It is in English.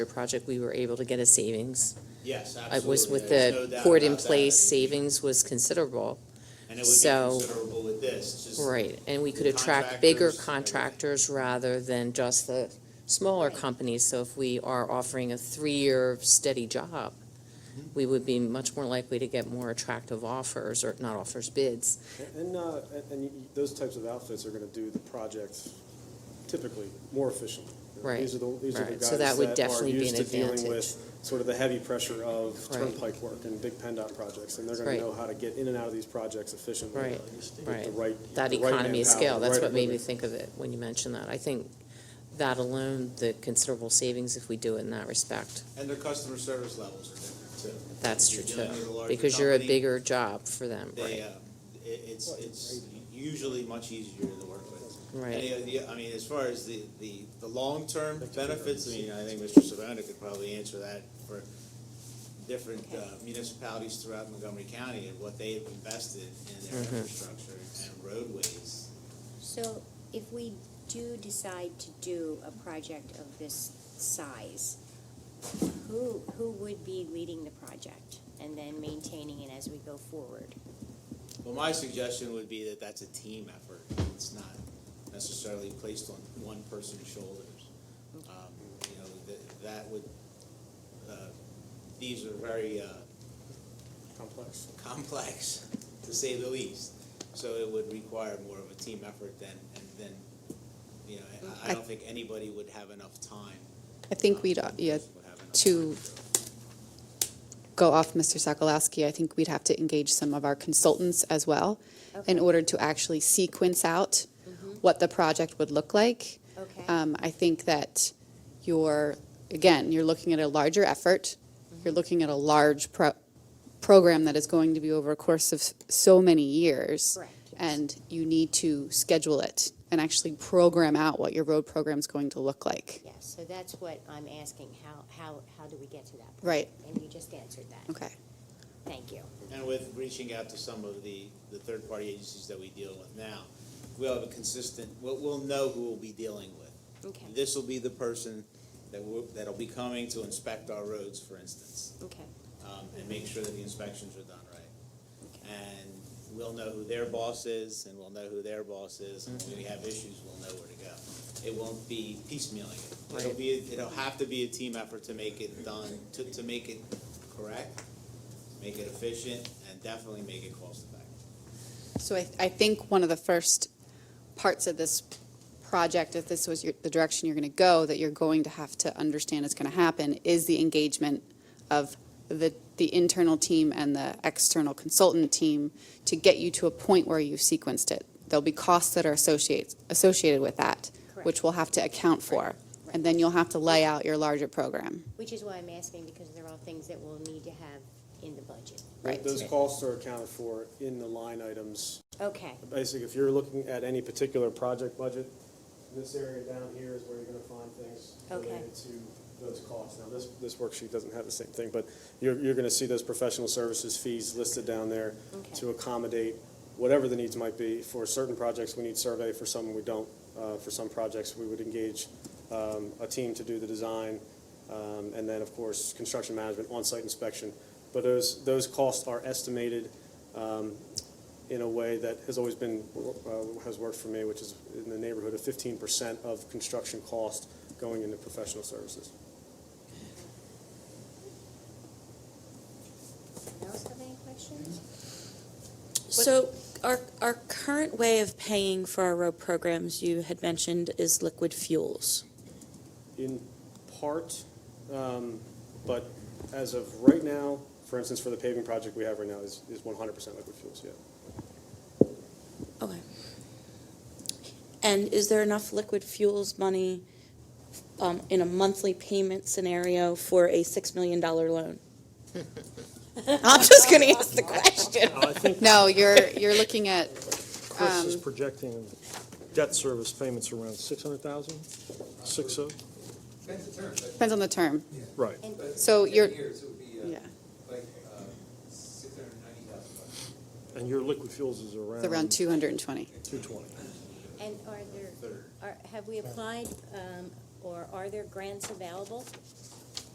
project, we were able to get a savings. Yes, It absolutely. was with There's the no doubt court in about that. place, savings was considerable, And it would be so- considerable with this, it's just. right? And we could The attract bigger contractors, contractors rather than just the smaller companies. So if we are offering a three-year steady job, Mm-hmm. we would be much more likely to get more attractive offers, or not offers, bids. And, uh, and- and you- those types of outfits are gonna do the projects typically more efficiently. Right, These are the, these are the right. So that guys would that are definitely be used to an dealing advantage. with sort of the heavy pressure of Right. turnpike work and big PennDOT projects, and they're gonna Right. know how to get in and out of these projects efficiently. Right, with right. the right. That the right economy of manpower, scale, the that's right what made me equipment. think of it when you mentioned that. I think that alone, the considerable savings if we do it in that respect, And their customer service levels are different too. that's You're true too. dealing with a larger Because you're a company, bigger job for them, They, right? uh, it, it's, it's usually much easier to work with. Right. And, uh, the- I mean, as far as the, the, the long-term benefits, I mean, I think Mr. Savona could probably answer that for different uh, municipalities throughout Montgomery County and what they have invested in their Mm-hmm. infrastructure and roadways. So if we do decide to do a project of this size, who, who would be leading the project and then maintaining it as we go forward? Well, my suggestion would be that that's a team effort. It's not necessarily placed on one person's shoulders. Um, You know, that, that would, uh, these are very, uh, Complex. complex, to say the least. So it would require more of a team effort than, and then, you know, I, I don't think anybody would have enough time. I think we'd, uh, yeah, to go off Mr. Sokolowski, I think we'd have to engage some of our consultants as well in Okay. Mm-hmm. order to actually sequence out what the project would look like. Okay, Um, I think that you're, again, you're looking at a larger effort. Mm-hmm. You're looking at a large pro- program that is going to be over a course of s- so many years. Correct, yes. And you need to schedule it and actually program out what your road program's going to look like. yeah, so that's what I'm asking, how, how, how do we get to that? point? Right. And you just answered that, Okay. thank you. And with reaching out to some of the, the third-party agencies that we deal with now, we'll have a consistent, we'll, we'll know who we'll be dealing with. Okay, This will be the person that will, that'll be coming to inspect our roads, for instance, okay, um, and make sure that the inspections are done right. okay, and we'll know who their boss is, and we'll know who their boss is, and when we have issues, we'll know where to go. It won't be piecemealing it. It'll Right. be, it'll have to be a team effort to make it done, to, to make it correct, make it efficient, and definitely make it cost effective. So I, I think one of the first parts of this project, if this was your, the direction you're going to go, that you're going to have to understand is going to happen, is the engagement of the, the internal team and the external consultant team to get you to a point where you've sequenced it. There'll be costs that are associated, associated with that, Correct. which we'll have to account for. And then you'll have to lay out your larger program. which is why I'm asking, because they're all things that we'll need to have in the budget. Right. Those costs are accounted for in the line items Okay, Basically, if you're looking at any particular project budget, this area down here is where you're gonna find things Okay. related to those costs. Now, this, this worksheet doesn't have the same thing, but you're, you're gonna see those professional services fees listed down there Okay. to accommodate whatever the needs might be. For certain projects, we need survey, for some, we don't. Uh, for some projects, we would engage, um, a team to do the design, um, and then, of course, construction management, on-site inspection. But those, those costs are estimated, um, in a way that has always been, uh, has worked for me, which is in the neighborhood of fifteen percent of construction cost going into professional services. anyone else have any questions? So our, our current way of paying for our road programs, you had mentioned, is liquid fuels. In part, um, but as of right now, for instance, for the paving project we have right now is, is one hundred percent liquid fuels, yeah. Okay. And is there enough liquid fuels money um, in a monthly payment scenario for a $6 million loan? I'm just going to ask the question. I think No, you're, you're looking at, um, Chris is projecting debt service payments around 600,000, six oh, Depends the term, but depends on the term. right. but So ten you're- years, it would be Yeah. uh, like uh, six hundred and ninety thousand bucks. And your liquid fuels is around. It's around 220. 220. And are there, are, have we applied, um, or are there grants available